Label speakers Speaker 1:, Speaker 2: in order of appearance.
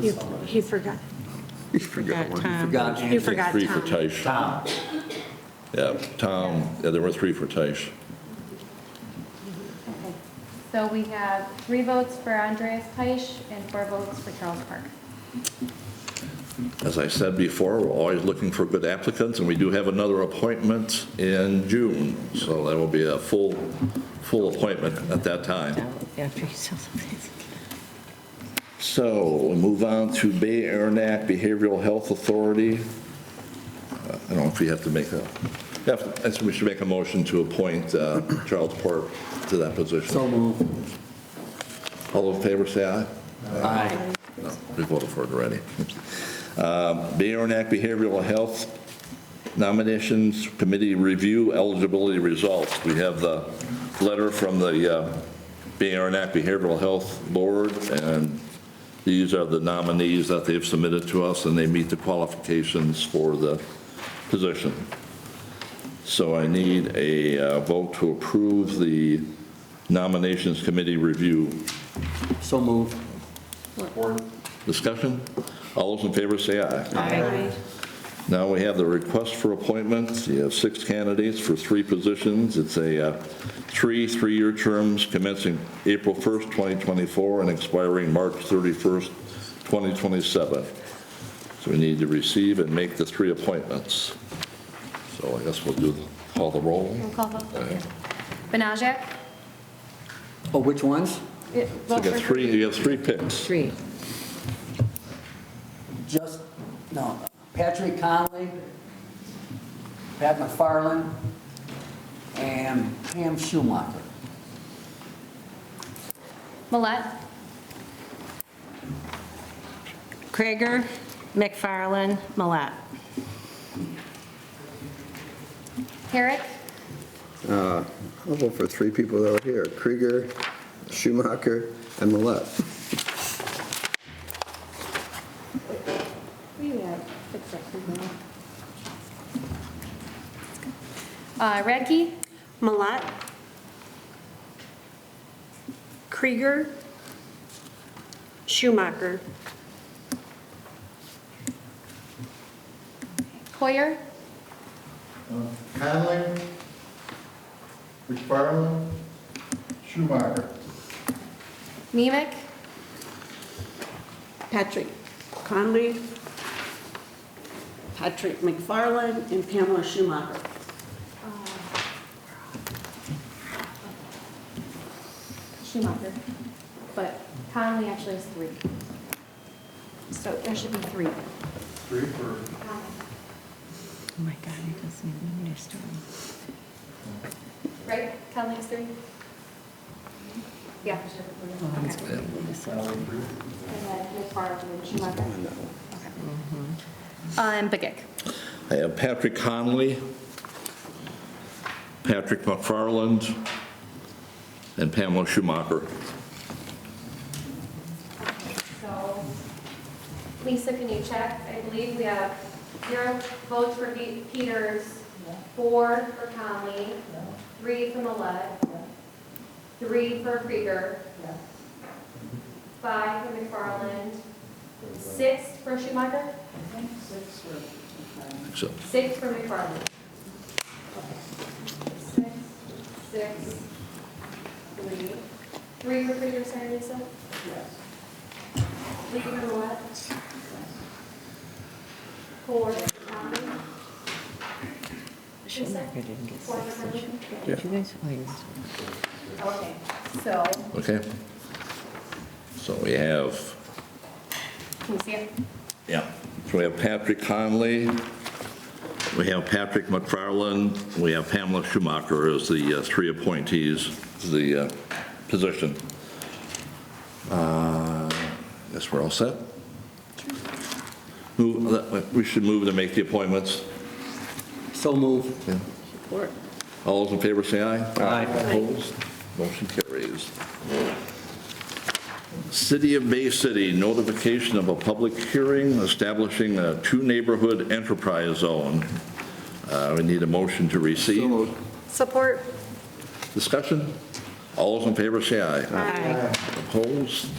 Speaker 1: You, he forgot.
Speaker 2: You forgot one.
Speaker 1: Tom.
Speaker 3: forgot
Speaker 1: You
Speaker 3: Anthony.
Speaker 1: forgot
Speaker 4: Three for
Speaker 1: Tom.
Speaker 4: Tish.
Speaker 3: Tom,
Speaker 4: Yeah, Tom, yeah, there were three for Tish.
Speaker 5: Okay. So we have three votes for Andreas Peisch and four votes for Charles Park.
Speaker 4: As I said before, we're always looking for good applicants, and we do have another appointment in June, so that will be a full, full appointment at that time.
Speaker 1: After he sells it.
Speaker 4: So we move on to Bay Aranac Behavioral Health Authority. Uh, I don't know if we have to make a, yeah, I think we should make a motion to appoint uh, Charles Port to that position.
Speaker 3: so move.
Speaker 4: All those in favor, say aye.
Speaker 3: Aye.
Speaker 4: No, we voted for it already. Uh, Bay Aranac Behavioral Health Nominations Committee Review Eligibility Results. We have the letter from the uh, Bay Aranac Behavioral Health Board, and these are the nominees that they've submitted to us, and they meet the qualifications for the position. So I need a uh, vote to approve the Nominations Committee Review
Speaker 3: So move.
Speaker 4: Discussion? All those in favor say aye.
Speaker 1: Aye.
Speaker 4: Now we have the request for appointments. You have six candidates for three positions. It's a uh, three, three-year terms commencing April 1st, 2024 and expiring March 31st, 2027. So we need to receive and make the three appointments. So I guess we'll do, call the roll.
Speaker 5: Roll call vote. Benajak?
Speaker 3: Oh, which ones?
Speaker 5: It-
Speaker 4: So you
Speaker 5: vote
Speaker 4: got
Speaker 5: for-
Speaker 4: three, you have three picks.
Speaker 1: Three.
Speaker 3: Just, no, Patrick Conley, Pat McFarland, and Pam Schumacher.
Speaker 5: Millet?
Speaker 1: Krieger, McFarland, Malat.
Speaker 5: Herrick?
Speaker 6: I'll vote for three people that are here, Krieger, Schumacher, and Millet.
Speaker 5: Uh, Radke?
Speaker 1: Malat. Krieger. Schumacher.
Speaker 5: Hoyer?
Speaker 7: Conley, McFarland, Schumacher.
Speaker 5: Nemec?
Speaker 8: Patrick Conley, Patrick McFarland, and Pamela Schumacher.
Speaker 5: Schumacher. But Conley actually has three. So there should be three.
Speaker 7: Three for.
Speaker 1: Oh my God, he doesn't even understand.
Speaker 5: Right? Conley has three? Yeah.
Speaker 1: Oh,
Speaker 5: Okay. And then McFarland and Schumacher.
Speaker 1: Mm-hmm.
Speaker 5: Okay. Uh, And Begic.
Speaker 4: I have Patrick Conley, Patrick McFarland, and Pamela Schumacher.
Speaker 5: So Lisa, can you check? I believe we have zero votes for Pe- Peters, four for Conley, three for Millet, three for Krieger, five for McFarland, six for Schumacher,
Speaker 4: So
Speaker 5: six for McFarland. Six, six, three. Three for Krieger, sorry, Lisa? Three for Millet? Four for Conley?
Speaker 1: Schumacher didn't get
Speaker 5: Four
Speaker 1: six.
Speaker 5: for
Speaker 1: did she?
Speaker 5: Conley?
Speaker 1: Did you guys? oh, you-
Speaker 5: Okay, so,
Speaker 4: Okay. So we have,
Speaker 5: can you see it?
Speaker 4: yeah, so we have Patrick Conley, we have Patrick McFarland, we have Pamela Schumacher as the uh, three appointees to the uh, position. Uh, Guess we're all set? Move- uh, We should move to make the appointments.
Speaker 3: So move.
Speaker 4: All those in favor say aye.
Speaker 3: Aye.
Speaker 4: Opposed? Motion carries. City of Bay City, notification of a public hearing establishing a two-neighborhood enterprise zone. Uh, We need a motion to receive.
Speaker 1: Support.
Speaker 4: Discussion? All those in favor say aye.
Speaker 1: Aye.
Speaker 4: Opposed?